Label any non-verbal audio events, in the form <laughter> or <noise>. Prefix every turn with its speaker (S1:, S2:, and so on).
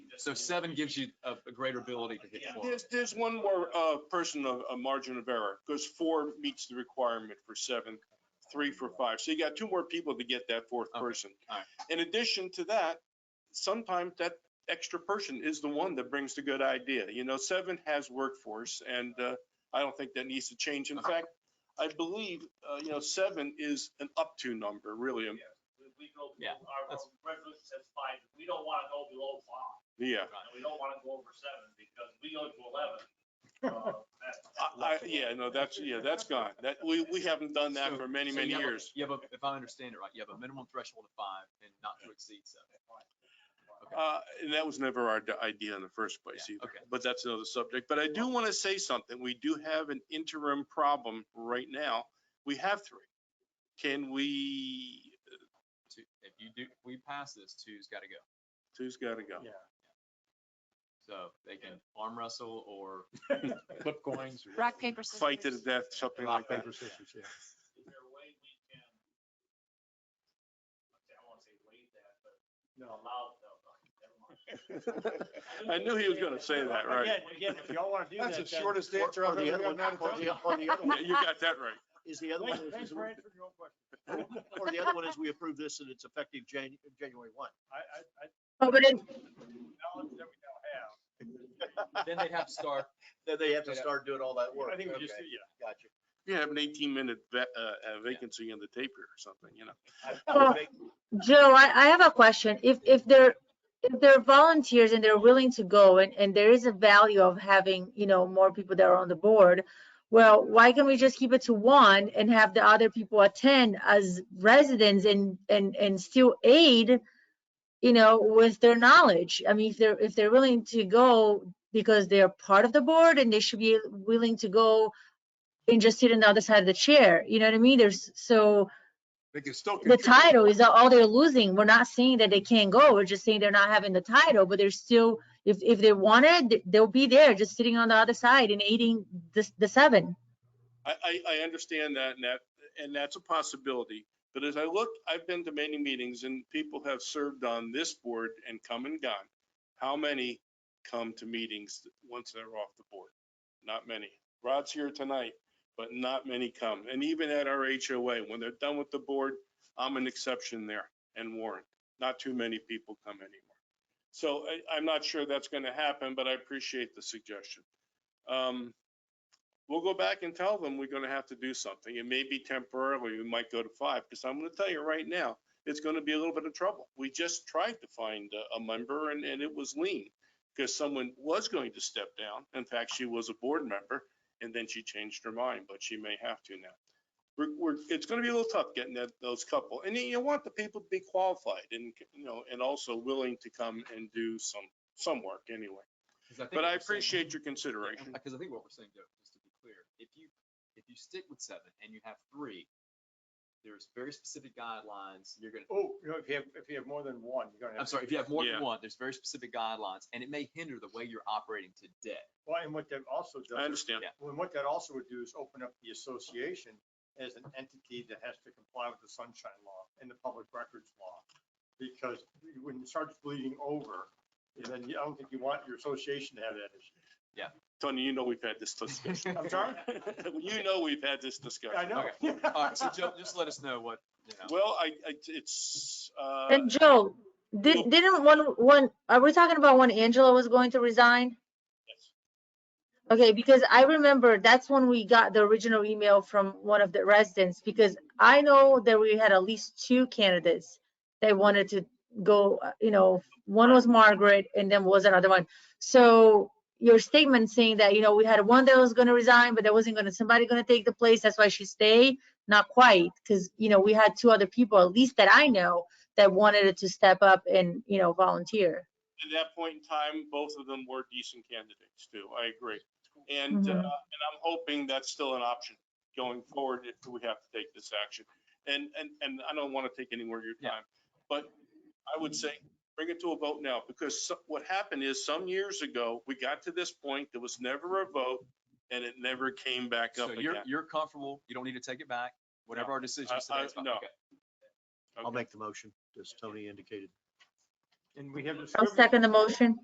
S1: So seven gives you a, a greater ability to hit
S2: Yeah.
S1: four.
S3: There's, there's one more uh, person of a margin of error, because four meets the requirement for seven, three for five. So you got two more people to get that fourth
S1: Okay,
S3: person.
S1: alright.
S3: In addition to that, sometimes that extra person is the one that brings the good idea. You know, seven has workforce, and uh, I don't think that needs to change. In
S1: Okay.
S3: fact, I believe, uh, you know, seven is an up-to number, really. um,
S2: We- We go,
S1: Yeah,
S2: our our
S1: that's-
S2: resolution says five, we don't want to go below five.
S3: Yeah.
S1: Right.
S2: And we don't want to go over seven because we go to eleven.
S1: <laughs>
S2: uh, that's-
S3: I- I- Yeah, no, that's, yeah, that's gone. That, we, we haven't done that
S1: So-
S3: for many,
S1: so
S3: many
S1: you have a-
S3: years.
S1: You have a, if I understand it right, you have a minimum threshold of five and not to exceed seven. Okay.
S3: Uh, And that was never our d- idea in the first place
S1: Yeah,
S3: either,
S1: okay.
S3: but that's another subject. But I do want to say something. We do have an interim problem right now. We have three. Can we,
S1: Two- If you do, if we pass this, two's got to go.
S3: two's got to go.
S4: Yeah.
S1: So they can arm wrestle or
S4: Flip
S5: <laughs>
S4: coins. or-
S6: Rock, paper, scissors.
S3: Fight to the death, something like
S4: Rock,
S3: that.
S4: paper, scissors, yeah.
S2: Is there a way we can? I don't want to say waive that, but allow, no, no, never mind.
S3: <laughs> I knew he was going to say that, right?
S4: Again, again, if y'all want to do that.
S5: That's the
S4: then-
S5: shortest
S4: or-
S5: answer
S4: or
S5: I've
S4: the
S5: ever
S4: other one-
S5: gotten out of
S4: or the- Or the other
S3: Yeah,
S4: one,
S3: You got that right.
S5: Is <laughs> the other one,
S4: Thanks-
S5: is-
S4: thanks
S5: is-
S4: for answering your own question.
S5: or the other one is we approve this and it's effective Jan, January one.
S4: I, I, I,
S6: Oh, but it-
S4: knowledge that we now
S5: <laughs>
S4: have.
S1: then they'd have to start.
S5: Then they have to
S1: Yeah.
S5: start doing all that work.
S4: I think we just,
S5: Okay,
S4: yeah.
S5: Gotcha.
S3: You have an 18-minute uh, vacancy in the taper or something, you know?
S5: I- I would
S6: Well,
S5: make-
S6: Joe, I, I have a question. If, if they're, if they're volunteers and they're willing to go and, and there is a value of having, you know, more people that are on the board, well, why can't we just keep it to one and have the other people attend as residents and, and, and still aid, you know, with their knowledge? I mean, if they're, if they're willing to go because they're part of the board and they should be willing to go and just sit on the other side of the chair, you know what I mean? There's, so
S5: They can still.
S6: the
S5: contribute.
S6: title is all they're losing. We're not saying that they can't go. We're just saying they're not having the title, but they're still, if, if they want it, th- they'll be there just sitting on the other side and eating the, the seven.
S3: I, I, I understand that and that, and that's a possibility. But as I look, I've been to many meetings and people have served on this board and come and gone. How many come to meetings once they're off the board? Not many. Rod's here tonight, but not many come. And even at our HOA, when they're done with the board, I'm an exception there and Warren. Not too many people come anymore. So I, I'm not sure that's going to happen, but I appreciate the suggestion. Um, we'll go back and tell them we're gonna have to do something. It may be temporarily, we might go to five, because I'm gonna tell you right now, it's gonna be a little bit of trouble. We just tried to find a, a member and, and it was lean, because someone was going to step down. In fact, she was a board member, and then she changed her mind, but she may have to now. We're, we're, it's gonna be a little tough getting that, those couple, and you- you want the people to be qualified and, you know, and also willing to come and do some, some work anyway.
S1: 'cause think
S3: But
S1: what
S3: I
S1: we're saying-
S3: appreciate your consideration.
S1: Because I think what we're saying, Joe, just to be clear, if you, if you stick with seven and you have three, there's very specific guidelines. You're gonna,
S4: Oh, you know, if you have, if you have more than one, you're gonna have.
S1: I'm sorry, if you have more
S3: Yeah.
S1: than one, there's very specific guidelines and it may hinder the way you're operating today.
S4: Well, and what that also does.
S3: I
S4: is-
S3: understand.
S4: Well, what that also would do is open up the association as an entity that has to comply with the sunshine law and the public records law. Because when it starts bleeding over, then you- I don't think you want your association to have that issue.
S3: Tony, you know we've had this discussion.
S4: I'm sorry?
S3: <laughs> You know we've had this
S4: I
S3: discussion.
S4: know.
S1: All right, so Joe, just let us know what, you know.
S3: Well, I, I- it's, uh,
S6: And Joe,
S3: Cool.
S6: did, didn't one, one, are we talking about when Angela was going to resign?
S3: Yes.
S6: Okay, because I remember that's when we got the original email from one of the residents, because I know that we had at least two candidates that wanted to go, uh, you know, one was Margaret and then was another one. So your statement saying that, you know, we had one that was gonna resign, but there wasn't gonna, somebody gonna take the place, that's why she stayed? Not quite, because, you know, we had two other people, at least that I know, that wanted to step up and, you know, volunteer.
S3: at that point in time, both of them were decent candidates too. I agree. And, uh,
S6: Mhm.
S3: and I'm hoping that's still an option going forward if we have to take this action. And, and, and I don't want to take any more of your
S1: Yeah.
S3: time, but I would say bring it to a vote now because so- what happened is some years ago, we got to this point, there was never a vote and it never came back
S1: So
S3: up again.
S1: you're, you're comfortable. You don't need to take it back. Whatever our decision
S3: I-
S1: is today
S3: I-
S1: is fine.
S3: uh, no.
S1: Okay.
S5: I'll make the motion, as Tony indicated.
S4: And we have.
S6: I'll second the motion.